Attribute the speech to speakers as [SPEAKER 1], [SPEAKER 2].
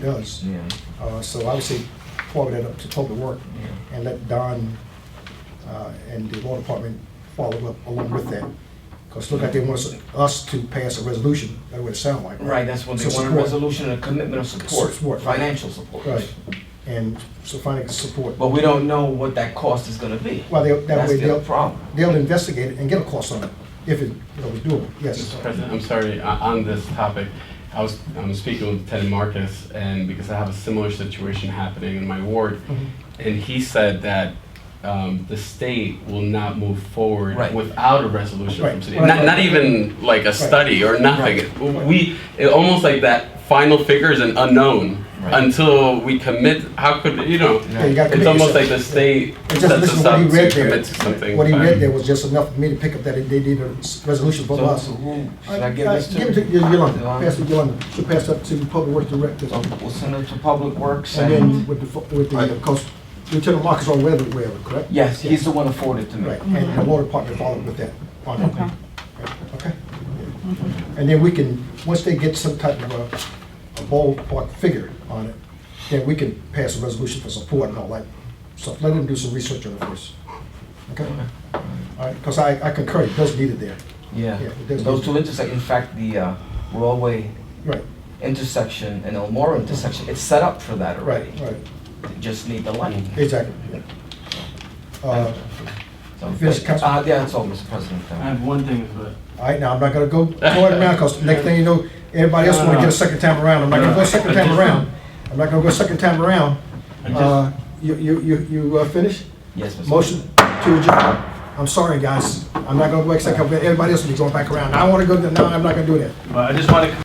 [SPEAKER 1] does.
[SPEAKER 2] Yeah,
[SPEAKER 1] Uh, So I would say forward that up to public work
[SPEAKER 2] yeah.
[SPEAKER 1] and let Don uh, and the law department follow up along with that. Because look like they want us- us to pass a resolution, that's what it sounds like.
[SPEAKER 2] Right, that's what
[SPEAKER 1] So
[SPEAKER 2] they want, a
[SPEAKER 1] support.
[SPEAKER 2] resolution and a commitment of support,
[SPEAKER 1] Support.
[SPEAKER 2] financial support.
[SPEAKER 1] Right, and so finding support.
[SPEAKER 2] But we don't know what that cost is gonna be.
[SPEAKER 1] Well, they- that
[SPEAKER 2] That's
[SPEAKER 1] way
[SPEAKER 2] the
[SPEAKER 1] they'll,
[SPEAKER 2] problem.
[SPEAKER 1] they'll investigate it and get a cost on it, if it, you know, is doable, yes.
[SPEAKER 3] Mr. President, I'm sorry, o- on this topic, I was, I'm speaking with Lieutenant Marcus, and because I have a similar situation happening in my ward,
[SPEAKER 1] Mhm.
[SPEAKER 3] and he said that um, the state will not move forward
[SPEAKER 2] Right.
[SPEAKER 3] without a resolution
[SPEAKER 1] Right,
[SPEAKER 3] from city.
[SPEAKER 1] right,
[SPEAKER 3] Not,
[SPEAKER 1] right.
[SPEAKER 3] not even like a study or nothing.
[SPEAKER 1] Right.
[SPEAKER 3] We it, almost like that final figure is an unknown
[SPEAKER 2] Right.
[SPEAKER 3] until we commit. How could you know?
[SPEAKER 1] Yeah, you gotta
[SPEAKER 3] It's
[SPEAKER 1] commit
[SPEAKER 3] almost like
[SPEAKER 1] yourself.
[SPEAKER 3] the state
[SPEAKER 1] And
[SPEAKER 3] sets
[SPEAKER 1] just listen
[SPEAKER 3] us
[SPEAKER 1] to what
[SPEAKER 3] up
[SPEAKER 1] he
[SPEAKER 3] to
[SPEAKER 1] read there.
[SPEAKER 3] commit to something.
[SPEAKER 1] What he
[SPEAKER 3] but-
[SPEAKER 1] read there was just enough for me to pick up that they did a s- resolution
[SPEAKER 2] So
[SPEAKER 1] from us.
[SPEAKER 2] so who, should
[SPEAKER 1] Uh,
[SPEAKER 2] I give
[SPEAKER 1] uh,
[SPEAKER 2] this to?
[SPEAKER 1] Give it to Y- Yolanda,
[SPEAKER 2] Yolanda?
[SPEAKER 1] pass it to Yolanda, she'll pass that to Public Works Director.
[SPEAKER 2] So We'll send it to Public Works
[SPEAKER 1] And
[SPEAKER 2] and,
[SPEAKER 1] then with the, fo- with the, because Lieutenant Marcus on weather, wherever, correct?
[SPEAKER 2] yes, he's the one who forwarded it to me.
[SPEAKER 1] Right, and the water department followed with that, on that. Right, Okay? And then we can, once they get some type of a, a ballpark figure on it, then we can pass a resolution for support and all that stuff. Let them do some research on it first. Okay? All right, because I, I concur, it does need it there.
[SPEAKER 2] Yeah,
[SPEAKER 1] Yeah, it does
[SPEAKER 2] those
[SPEAKER 1] need-
[SPEAKER 2] two intersect, in fact, the uh, Broadway
[SPEAKER 1] Right,
[SPEAKER 2] intersection and Elmore intersection, it's set up for that
[SPEAKER 1] right,
[SPEAKER 2] already.
[SPEAKER 1] right,
[SPEAKER 2] They Just need the light.
[SPEAKER 1] exactly, yeah. Uh,
[SPEAKER 2] So,
[SPEAKER 1] Yes, Council-
[SPEAKER 2] uh, yeah, that's all, Mr. President.
[SPEAKER 4] I have one thing, but
[SPEAKER 1] All right, now, I'm not gonna go going around, because next thing you know, everybody else wanna get a second time around, I'm not gonna go second time around. I'm not gonna go second time around.
[SPEAKER 4] I just-
[SPEAKER 1] Uh, you, you, you, you uh, finished?
[SPEAKER 2] Yes, Mr.
[SPEAKER 1] Motion to adjourn. I'm sorry, guys, I'm not gonna go second, everybody else will be going back around. I wanna go, no, I'm not gonna do that.
[SPEAKER 4] but I just want to